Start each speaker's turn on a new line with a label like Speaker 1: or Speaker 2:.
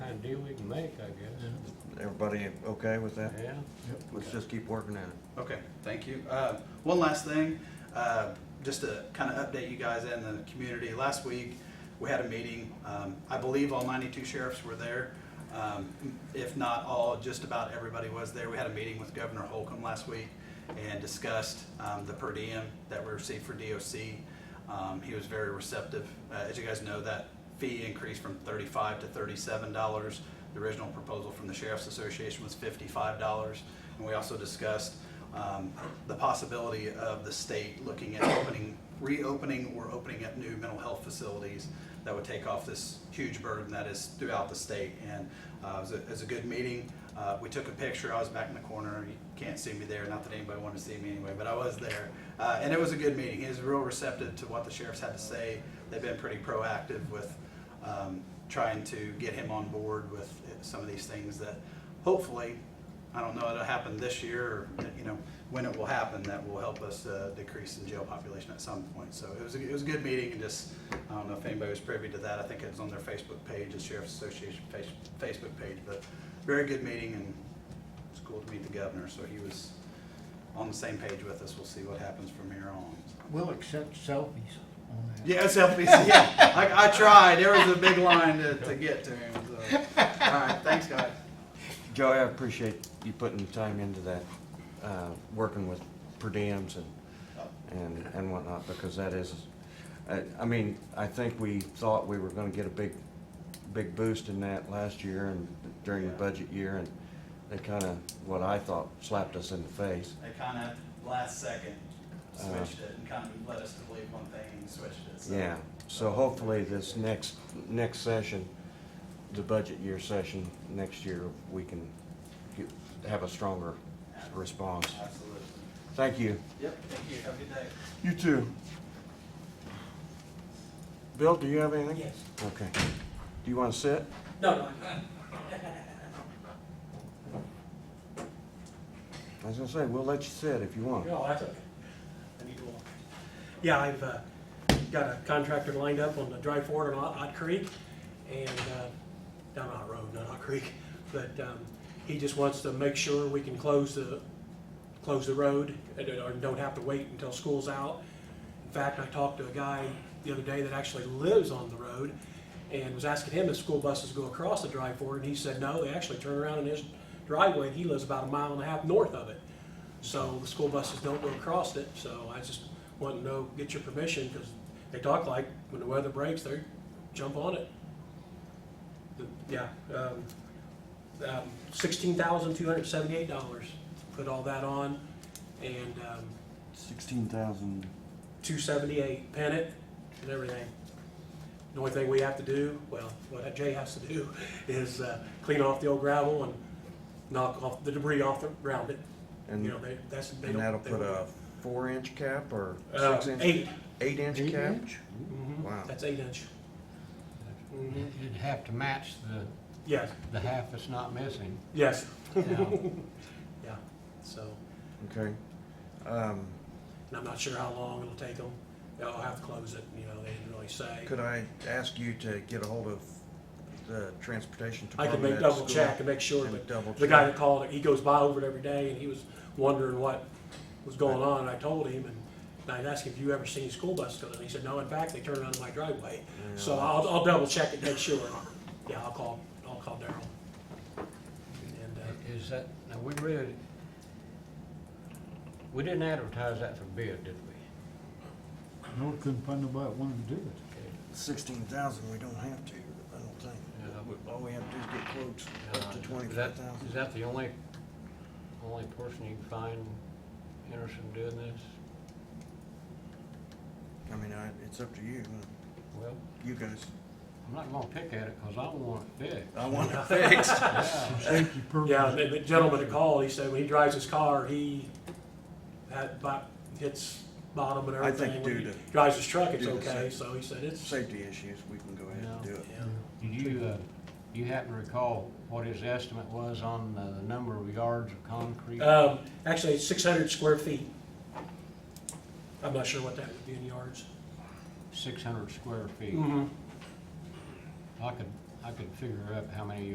Speaker 1: make, I
Speaker 2: Everybody okay with that?
Speaker 1: guess. Yeah.
Speaker 2: Let's just keep working at it.
Speaker 3: Okay, thank you. Uh, One last thing, uh, just to kind of update you guys and the community. Last week, we had a meeting. Um, I believe all 92 sheriffs were there. Um, If not all, just about everybody was there. We had a meeting with Governor Holcomb last week and discussed um, the per diem that we received for DOC. Um, He was very receptive. Uh, As you guys know, that fee increased from thirty-five to thirty-seven dollars. The original proposal from the Sheriff's Association was fifty-five dollars. And we also discussed um, the possibility of the state looking at opening, reopening or opening up new mental health facilities that would take off this huge burden that is throughout the state. And uh, it was a, it was a good meeting. Uh, We took a picture. I was back in the corner. You can't see me there. Not that anybody wanted to see me anyway, but I was there. Uh, And it was a good meeting. He was real receptive to what the sheriffs had to say. They've been pretty proactive with um, trying to get him on board with some of these things that hopefully, I don't know, it'll happen this year or, you know, when it will happen, that will help us uh, decrease in jail population at some point. So it was, a- it was a good meeting and just, I don't know if anybody was privy to that. I think it was on their Facebook page, the Sheriff's Association face- Facebook page, but very good meeting and it's cool to meet the governor. So he was on the same page with us. We'll see what happens from here on.
Speaker 4: We'll accept selfies on that.
Speaker 3: Yeah, selfies. Yeah, I, I tried. There was a big line to, to get to him. So. All right, thanks, guys.
Speaker 2: Joey, I appreciate you putting the time into that, uh, working with per diems and, and, and whatnot, because that is, I, I mean, I think we thought we were gonna get a big, big boost in that last year and during the
Speaker 3: Yeah.
Speaker 2: budget year, and they kinda, what I thought slapped us in the face.
Speaker 3: They kind of last second switched it and kind of led us to believe one thing and switched it. So.
Speaker 2: Yeah, so hopefully this next, next session, the budget year session, next year, we can get, have a stronger response.
Speaker 3: Absolutely.
Speaker 2: Thank you.
Speaker 3: Yep. Thank you. Have a good day.
Speaker 2: You too. Bill, do you have anything?
Speaker 5: Yes.
Speaker 2: Okay. Do you wanna sit?
Speaker 5: No, no.
Speaker 2: I was gonna say, we'll let you sit if you want.
Speaker 5: No, that's okay. I need to walk. Yeah, I've uh, got a contractor lined up on the dry forward on Hot Hot Creek and uh, down Hot Road, not Hot Creek. But um, he just wants to make sure we can close the, close the road and don't- or don't have to wait until school's out. In fact, I talked to a guy the other day that actually lives on the road and was asking him if school buses go across the dry forward. And he said, no, they actually turn around in his driveway and he lives about a mile and a half north of it. So the school buses don't go across it, so I just want to know, get your permission, because they talk like when the weather breaks, they jump on it. The- Yeah, um, um, sixteen thousand two hundred seventy-eight dollars, put all that on, and, um,
Speaker 2: Sixteen thousand.
Speaker 5: two seventy-eight, pin it, and everything. The only thing we have to do, well, what Jay has to do is, uh, clean off the old gravel and knock off the debris off the, around it.
Speaker 2: And-
Speaker 5: You know, they, that's, they don't.
Speaker 2: And that'll
Speaker 5: they
Speaker 2: put
Speaker 5: don't-
Speaker 2: a four-inch cap or
Speaker 5: Uh,
Speaker 2: six-inch?
Speaker 5: eight.
Speaker 2: Eight-inch
Speaker 4: Eight
Speaker 2: cap?
Speaker 4: inch?
Speaker 5: Mhm.
Speaker 2: Wow.
Speaker 5: That's eight inch.
Speaker 2: Mm-hmm.
Speaker 5: Mhm.
Speaker 4: You'd have to match the,
Speaker 5: Yes,
Speaker 4: the half that's not missing.
Speaker 5: yes,
Speaker 4: Yeah.
Speaker 5: yeah. So,
Speaker 2: Okay. Um,
Speaker 5: and I'm not sure how long it'll take them. They'll have to close it, you know, they didn't really say.
Speaker 2: Could I ask you to get a hold of the transportation
Speaker 5: I
Speaker 2: department?
Speaker 5: can make
Speaker 2: at
Speaker 5: double
Speaker 2: school
Speaker 5: check and make sure,
Speaker 2: and
Speaker 5: but
Speaker 2: double
Speaker 5: the guy
Speaker 2: check?
Speaker 5: that called, he goes by over it every day and he was wondering what was going on. And I told him and and I asked him, have you ever seen school buses go? And he said, no, in fact, they turn around in my driveway. So I'll, I'll double check and make sure. Yeah, I'll call, I'll call Daryl. And, uh,
Speaker 4: Is that, now, we really, we didn't advertise that for bid, did we?
Speaker 6: No, we couldn't find nobody that wanted to do it.
Speaker 2: Sixteen thousand, we don't have to, I don't
Speaker 4: Yeah.
Speaker 2: think. All we have to do is get quotes up to
Speaker 4: Uh, is that-
Speaker 2: twenty-five
Speaker 4: Is
Speaker 2: thousand.
Speaker 4: that the only, only person you can find interested in doing this?
Speaker 2: I mean, I, it's up to you, uh,
Speaker 4: Well,
Speaker 2: you guys.
Speaker 4: I'm not gonna pick at it, cause I don't want it fixed.
Speaker 2: I want it fixed.
Speaker 4: Yeah.
Speaker 6: Safety purposes.
Speaker 5: Yeah, the the gentleman that called, he said when he drives his car, he had, about- hits bottom and
Speaker 2: I think
Speaker 5: everything. When
Speaker 2: due
Speaker 5: he
Speaker 2: to-
Speaker 5: Drives his truck, it's
Speaker 2: due to
Speaker 5: okay,
Speaker 2: safety.
Speaker 5: so he said it's,
Speaker 2: Safety issues, we can go ahead and do it.
Speaker 5: yeah.
Speaker 4: Did you, uh, you happen to recall what his estimate was on uh, the number of yards of concrete?
Speaker 5: Um, actually, it's six hundred square feet. I'm not sure what that would be in yards. Mm.
Speaker 4: Six hundred square feet. I could, I could figure out how many